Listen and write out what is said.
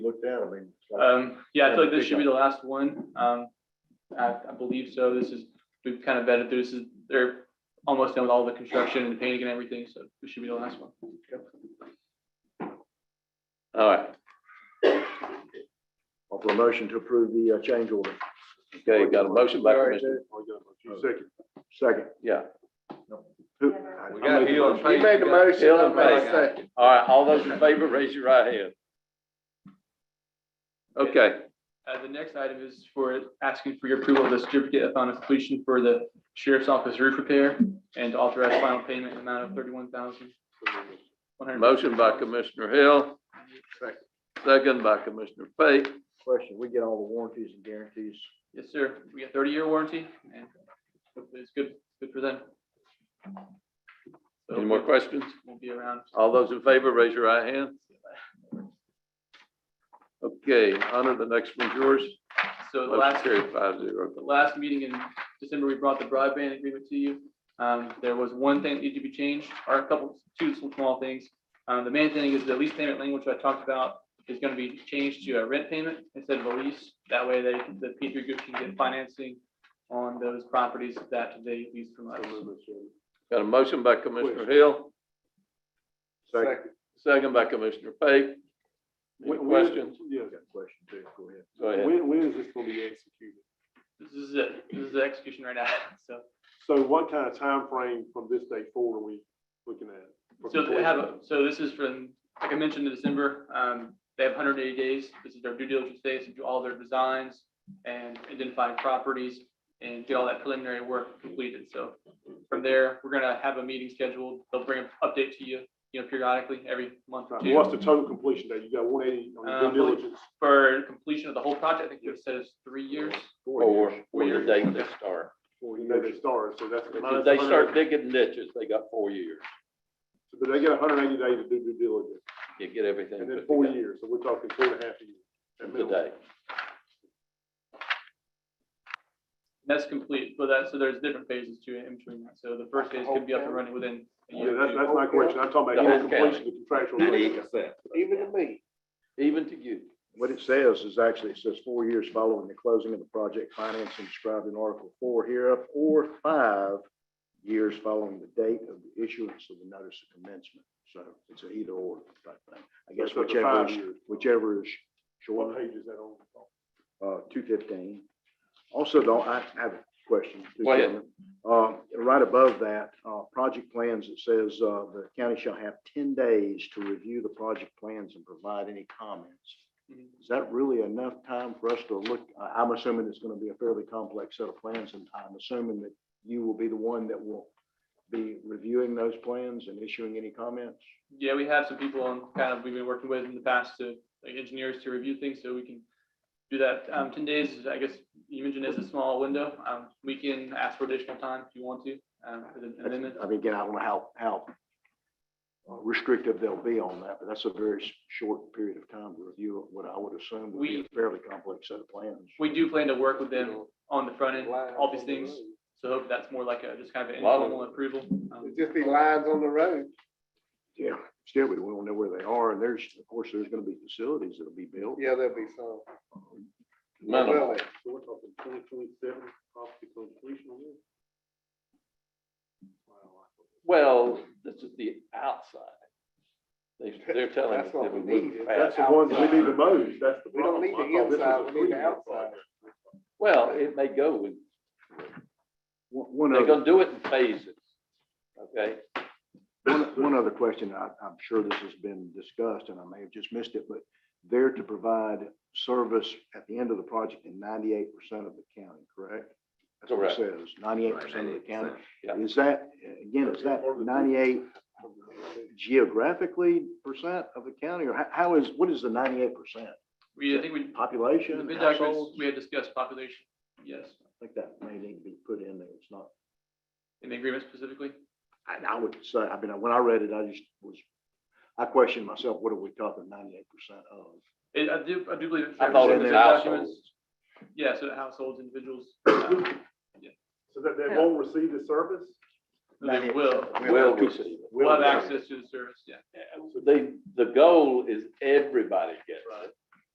it down, I mean. uh, it's like- Um, yeah, I feel like this should be the last one. Um, I, I believe so. This is, we've kind of vetted through, this is, they're almost done with all the construction and painting and everything, so this should be the last one. All right, Offer a motion to approve the uh, change order. okay, got a motion by All right, Commissioner, Jay. Second. yeah. Who- We I- I got made the Hill motion. and Page. He made the motion, Hill and I made a Page. second. All right, all those in favor, raise your right hand. Okay, Uh, the next item is for asking for your approval of the certificate upon completion for the sheriff's office roof repair and authorize final payment amount of thirty-one thousand. motion by Commissioner Hill, second by Commissioner Fake. Question, we get all the warranties and guarantees. Yes, sir. We got thirty-year warranty and hopefully it's good, good for them. So Any more questions? We'll be around. All those in favor, raise your right hand. Okay, Hunter, the next one's yours. So the Motion last, carried five zero. the last meeting in December, we brought the broadband agreement to you. Um, there was one thing that needed to be changed, or a couple, two small things. Um, the main thing is the lease payment language I talked about is gonna be changed to a rent payment instead of a lease. That way they, the P three group can get financing on those properties that they lease from us. Got a motion by Commissioner Hill, Second. second by Commissioner Fake. Any Wh- wh- questions? Yeah, Got a question too, go ahead. Go ahead. when, when is this gonna be executed? This is it. This is the execution right now, so. So what kind of time frame from this day forward are we looking at? For So they have, a- completion? so this is from, like I mentioned in December, um, they have hundred and eighty days. This is their due diligence days to do all their designs and identifying properties and get all that preliminary work completed. So from there, we're gonna have a meeting scheduled. They'll bring an update to you, you know, periodically every month or Right, two. What's the total completion date? You got one eighty Uh, on your due diligence. For completion of the whole project, I think it says three years. Or, or years. your date they start. Well, you know they started, so that's. If they start digging ditches, they got four years. But they get hundred and eighty days to do due diligence, You get everything and then put four together years, so we're talking two and a half years. at minimum. today. That's complete, but that, so there's different phases to it in between that. So the first phase could be up and running within a Yeah, year. or that's, two. that's my question. I'm talking The about whole either completion of contractual. diligence. Even to me. Even to you. What it says is actually, it says four years following the closing of the project financing described in Article four hereof, or five years following the date of the issuance of the notice of commencement. So it's an either or type thing. I guess So it's up to whichever, five is- years. whichever is short. What page is that on? uh, two fifteen. Also, though, I I have a question. Mr. Go ahead. Chairman. Uh, right above that, uh, project plans, it says, uh, the county shall have ten days to review the project plans and provide any comments. Mhm. Is that really enough time for us to look? I- I'm assuming it's gonna be a fairly complex set of plans, and I'm assuming that you will be the one that will be reviewing those plans and issuing any comments? Yeah, we have some people on kind of, we've been working with in the past to, like engineers to review things, so we can do that. Um, ten days, is, I guess, you mentioned is a small window. Um, we can ask for additional time if you want to, um, for the amendment. I mean, again, I don't know how, how uh, restrictive they'll be on that, but that's a very s- short period of time to review what I would assume would be We- a fairly complex set of plans. We do plan to work with them on the front end, all these things, so hope that's more like a, just kind of an A lot of- informal approval. Um, It'd just be lines on the road. Yeah, still, we won't know where they are, and there's, of course, there's gonna be facilities that'll be built. Yeah, there'll be some. Minimum. Really? So we're talking twenty twenty-seven, possibly completion on this? Wow, I- Well, this is the outside. They, they're telling us That's what that we we wouldn't needed. pass. That's the ones we need the most, that's the We don't problem. I need thought the this was a inside, we need the three-year outside. project. Well, it may go with, One, one they're other, gonna do it in phases. Okay, one, one other question, I, I'm sure this has been discussed, and I may have just missed it, but they're to provide service at the end of the project in ninety-eight percent of the county, correct? That's what it Correct. says, ninety-eight percent of the county. yeah. Is that, again, is that ninety-eight geographically percent of the county, or how, how is, what is the ninety-eight percent? We, I think we, in the Population, bid households? documents, we had discussed population, yes, I think that may need to be put in there, it's not, in the agreement specifically. I, I would say, I mean, when I read it, I just was, I questioned myself, what are we talking ninety-eight percent of? It, I do, I do believe. it's- I thought it in the was bid households. documents. Yeah, so the households, individuals, um, So that they won't receive the service? they will. Will receive it. We'll have access to the service, yeah. They, the goal is everybody gets it.